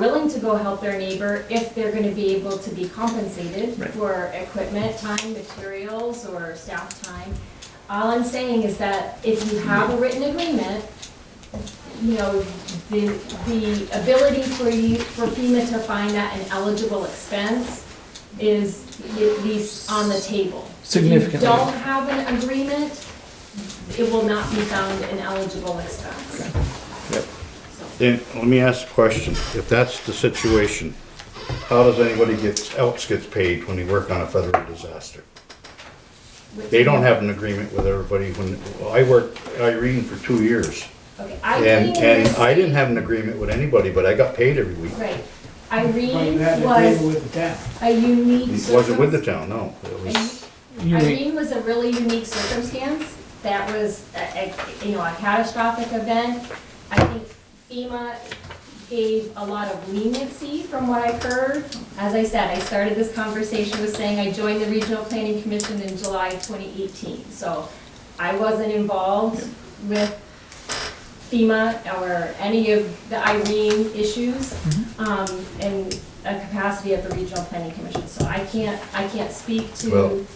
willing to go help their neighbor if they're gonna be able to be compensated Right. for equipment, time, materials, or staff time. All I'm saying is that if you have a written agreement, you know, the, the ability for you, for FEMA to find that an eligible expense is at least on the table. If you Significantly. don't have an agreement, it will not be found an eligible expense. Yep. So- Then, let me ask a question. If that's the situation, how does anybody gets, else gets paid when they work on a federal disaster? They don't have an agreement with everybody when, well, I worked Irene for two years. Okay, I And, think and this- I didn't have an agreement with anybody, but I got paid every week. Right. But you Irene had to agree was with the town. a unique It circumstance. wasn't with the town, no. It was, Unique. Irene was a really unique circumstance. That was, a- a- you know, a catastrophic event. I think FEMA gave a lot of leniency from what I've heard. As I said, I started this conversation with saying I joined the Regional Planning Commission in July 2018. So I wasn't involved with FEMA or any of the Irene issues um, in a capacity at the Regional Planning Commission. So I can't, I can't speak Well- to,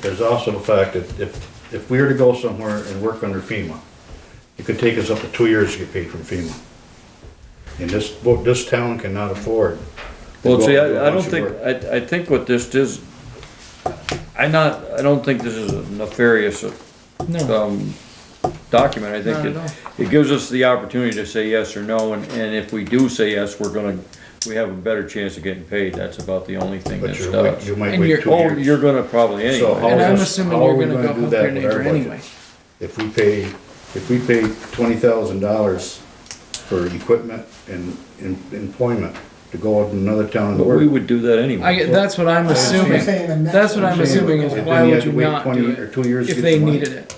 there's also the fact that if, if we were to go somewhere and work under FEMA, it could take us up to two years to get paid from FEMA. And this, this town cannot afford. to Well, go see, out and do a I, I don't bunch of think, work. I, I think what this is, I not, I don't think this is a nefarious, No, um, document, I Not at think all. it, it gives us the opportunity to say yes or no, and, and if we do say yes, we're gonna, we have a better chance of getting paid, that's about the only thing that But you're, wait- stops. you might And wait you're- two Oh, you're years. gonna probably So how and anyway, I'm is- assuming how you're are we gonna gonna go do help that your with neighbor our budget? anyway. If we pay, if we pay twenty thousand dollars for equipment and, and employment to go out in another town and but we work. would do that I, anyway. get- that's what I'm assuming, saying the next that's what one. I'm assuming is Then why you would have to you wait not 20 do Or it two years to if get they the money. needed it?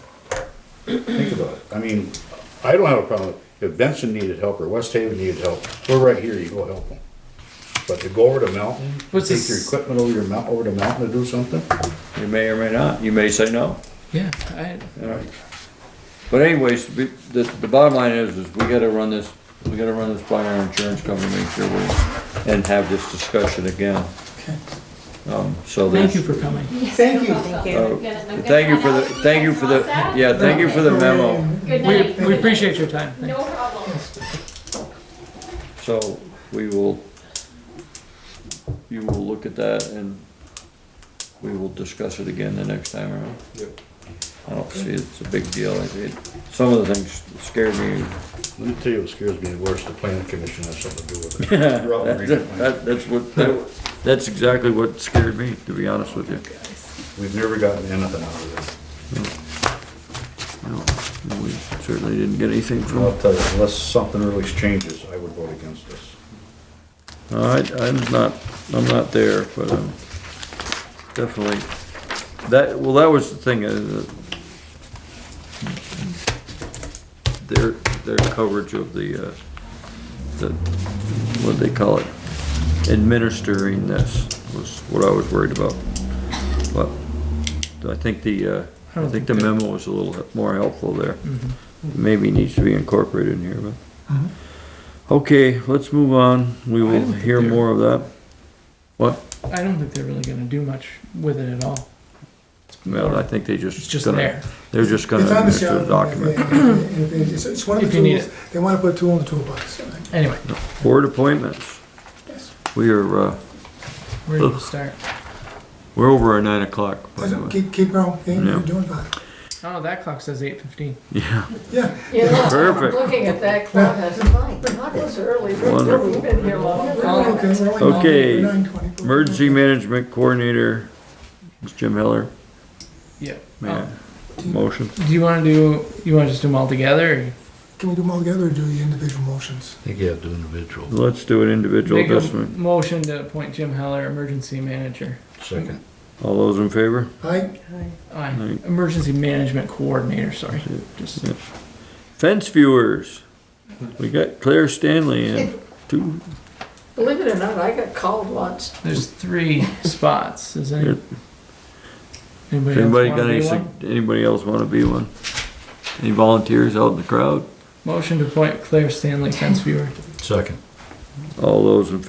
Think about it. I mean, I don't have a problem. If Benson needed help or West Haven needed help, we're right here, you go help them. But to go over to mountain, What's take this- your equipment over your mount, over to mountain to do something, You may or may not, you may say no. Yeah, I, But anyways, we- the, the bottom line is, is we gotta run this, we gotta run this by our insurance company, make sure we, and have this discussion again. Um, so there's. thank you for coming. Thank you. uh, I'm gonna- I'm Thank you for gonna the, thank you for the, email yeah, thank you for the memo. Good We, night. we appreciate your time. No problem. So we will, you will look at that and we will discuss it again the next time around. I don't see it's a big deal. I think some of the things scared me. let me tell you what scares me worse, the planning commission has something to do with it. You're out in Green Plains. That, that's what, that, that's exactly what scared me, to be honest with you. We've never gotten anything out of this. No, We certainly didn't get anything from. I'll tell you, unless something really changes, I would vote against this. I, I'm not, I'm not there, but um definitely, that, well, that was the thing, uh, the- their, their coverage of the, uh, the, what do they call it? Administering this was what I was worried about. But I think the, uh, I I don't think think the they- memo was a little more helpful there. Mm-hmm. Maybe needs to be incorporated in here, but. Okay, let's move on. We Uh-huh. I will don't think hear they're- more of that. What? I don't think they're really gonna do much with it at all, Well, I think they just. it's just gonna- there. They're just gonna It's on the administer shelf. the document. If they- It's it's one of the If you need tools, they wanna put a tool in the toolbox. Anyway, Board appointments. Yes. We are, uh, where do you start? we're over our nine o'clock. by the Doesn't- way. Keep, keep going, Hey, Yeah. you're doing fine. Oh, that clock says eight fifteen. Yeah, Yeah, perfect. Looking at that clubhouse, my God, it's early. We've- Wonderful. We've been here long. we're only- we're only Okay. 9:20. Emergency management coordinator, Ms. Jim Heller. Oh. Yeah. May I- Motion. Do you wanna do, you wanna just do them all together? or you- Can we do them all together or do the individual motions? I think you have to individual. Let's do an individual Make at this a one. motion to appoint Jim Heller, emergency manager. Second. All those in favor? Aye, Aye, Aye. emergency management coordinator, sorry, just. Fence viewers. We got Claire Stanley and two, Believe it or not, I got called once. There's three spots. Is any, Yeah. anybody, Anybody else got want any, to be sug- one? anybody else wanna be one? Any volunteers out in the crowd? Motion to appoint Claire Stanley fence viewer. Second. All those in